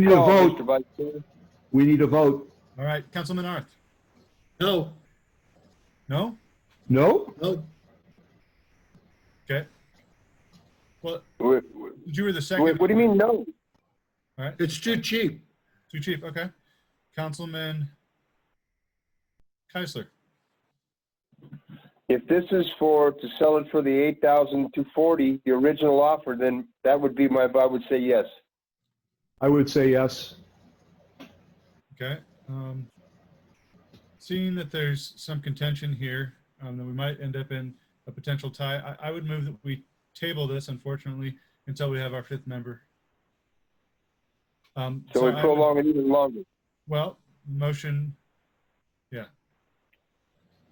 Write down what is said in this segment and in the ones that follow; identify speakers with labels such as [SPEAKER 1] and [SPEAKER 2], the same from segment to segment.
[SPEAKER 1] need a
[SPEAKER 2] No,
[SPEAKER 1] vote.
[SPEAKER 2] Mr. Vice Chair.
[SPEAKER 1] We need a vote.
[SPEAKER 3] All right, Councilman Arth.
[SPEAKER 4] No,
[SPEAKER 3] No?
[SPEAKER 1] No?
[SPEAKER 4] no,
[SPEAKER 3] Okay. Well,
[SPEAKER 2] Wait, wait,
[SPEAKER 3] you were the second.
[SPEAKER 2] wait, What do you mean, no?
[SPEAKER 3] All right,
[SPEAKER 4] it's too cheap.
[SPEAKER 3] too cheap. Okay. Councilman Keisler.
[SPEAKER 2] If this is for, to sell it for the eight thousand two forty, the original offer, then that would be my, I would say yes.
[SPEAKER 1] I would say yes.
[SPEAKER 3] Okay. Um, seeing that there's some contention here, um, that we might end up in a potential tie, I, I would move that we table this, unfortunately, until we have our fifth member. Um,
[SPEAKER 2] So we
[SPEAKER 3] I would-
[SPEAKER 2] prolong it even longer.
[SPEAKER 3] Well, motion, yeah.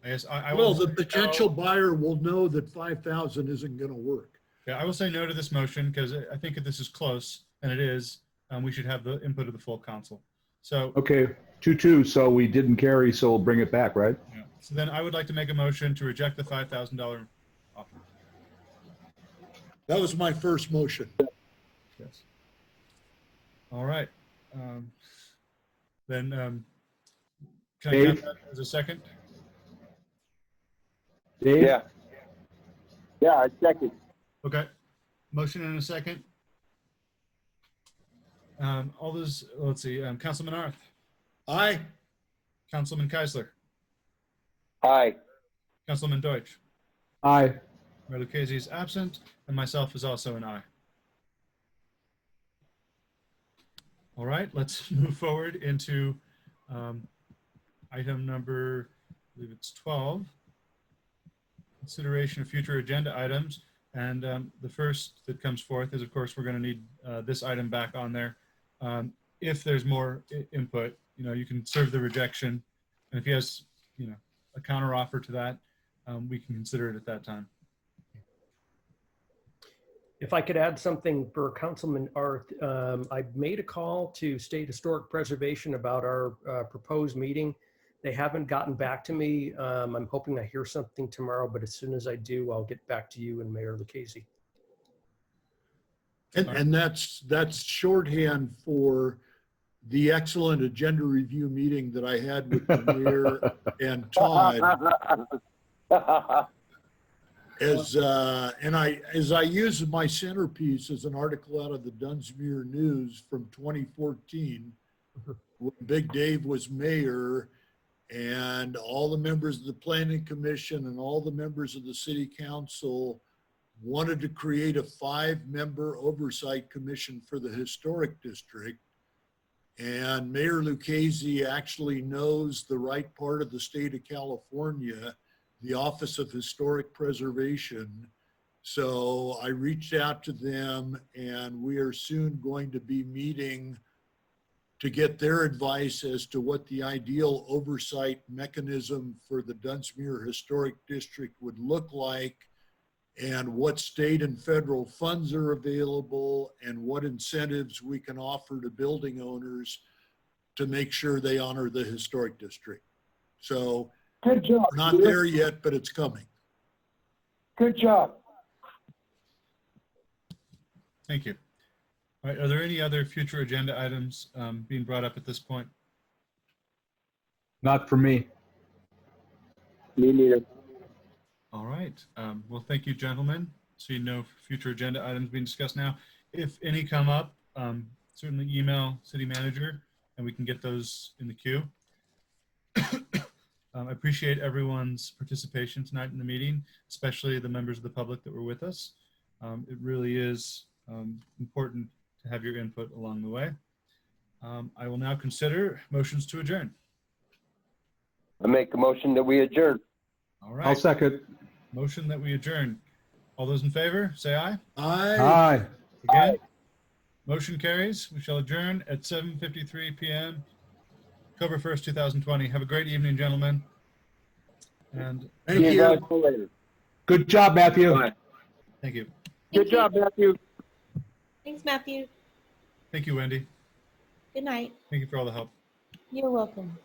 [SPEAKER 3] I guess I, I will.
[SPEAKER 4] Well, the
[SPEAKER 3] say no.
[SPEAKER 4] potential buyer will know that 5,000 isn't going to work.
[SPEAKER 3] Yeah, I will say no to this motion because I I think if this is close, and it is, um, we should have the input of the full council. So,
[SPEAKER 1] Okay, two-two, so we didn't carry, so we'll bring it back, right?
[SPEAKER 3] yeah. so then I would like to make a motion to reject the five thousand dollar offer.
[SPEAKER 4] That was my first motion.
[SPEAKER 3] Yes. All right. Um, then, um, can I have
[SPEAKER 1] Dave?
[SPEAKER 3] that as a second?
[SPEAKER 1] Dave?
[SPEAKER 2] Yeah. Yeah, I second.
[SPEAKER 3] Okay. Motion and a second. Um, all those, let's see, um, Councilman Arth,
[SPEAKER 4] Aye,
[SPEAKER 3] Councilman Keisler,
[SPEAKER 2] Aye.
[SPEAKER 3] Councilman Deutsch.
[SPEAKER 1] Aye.
[SPEAKER 3] Mayor Lucchese is absent, and myself is also an aye. All right, let's move forward into um, item number, I believe it's 12. Consideration of future agenda items. And um, the first that comes forth is, of course, we're going to need uh, this item back on there. Um, If there's more i- input, you know, you can serve the rejection. And if he has, you know, a counteroffer to that, um, we can consider it at that time.
[SPEAKER 5] If I could add something for Councilman Arth, um, I made a call to State Historic Preservation about our uh, proposed meeting. They haven't gotten back to me. Um, I'm hoping I hear something tomorrow, but as soon as I do, I'll get back to you and Mayor Lucchese.
[SPEAKER 4] and, and that's, that's shorthand for the excellent agenda review meeting that I had with the mayor and Todd. as uh, and I as I use my centerpiece as an article out of the Dunsmuir News from 2014, when Big Dave was mayor, and all the members of the planning commission and all the members of the city council wanted to create a five-member oversight commission for the historic district. And Mayor Lucchese actually knows the right part of the state of California the Office of Historic Preservation. So I reached out to them and we are soon going to be meeting to get their advice as to what the ideal oversight mechanism for the Dunsmuir Historic District would look like and what state and federal funds are available and what incentives we can offer to building owners to make sure they honor the historic district. So
[SPEAKER 2] Good job.
[SPEAKER 4] we're Not there yet, but it's coming.
[SPEAKER 2] Good job.
[SPEAKER 3] Thank you. All right, are there any other future agenda items um, being brought up at this point?
[SPEAKER 1] Not for me.
[SPEAKER 2] Me neither.
[SPEAKER 3] All right, um, well, thank you, gentlemen. See no future agenda items being discussed now. If any come up, um, certainly email city manager and we can get those in the queue. Um, I appreciate everyone's participation tonight in the meeting, especially the members of the public that were with us. Um, It really is um, important to have your input along the way. Um, I will now consider motions to adjourn.
[SPEAKER 2] I make a motion that we adjourn.
[SPEAKER 3] All
[SPEAKER 1] I'll
[SPEAKER 3] right,
[SPEAKER 1] second.
[SPEAKER 3] motion that we adjourn. All those in favor, say aye.
[SPEAKER 4] I,
[SPEAKER 1] Aye.
[SPEAKER 3] Again, motion carries. We shall adjourn at 7:53 PM, October 1st, 2020. Have a great evening, gentlemen. And
[SPEAKER 4] thank
[SPEAKER 2] See
[SPEAKER 4] you.
[SPEAKER 2] guys later.
[SPEAKER 1] Good job, Matthew.
[SPEAKER 2] Bye.
[SPEAKER 3] thank you.
[SPEAKER 2] Good job, Matthew.
[SPEAKER 6] Thanks, Matthew.
[SPEAKER 3] Thank you, Wendy.
[SPEAKER 6] Good night.
[SPEAKER 3] Thank you for all the help.
[SPEAKER 6] You're welcome.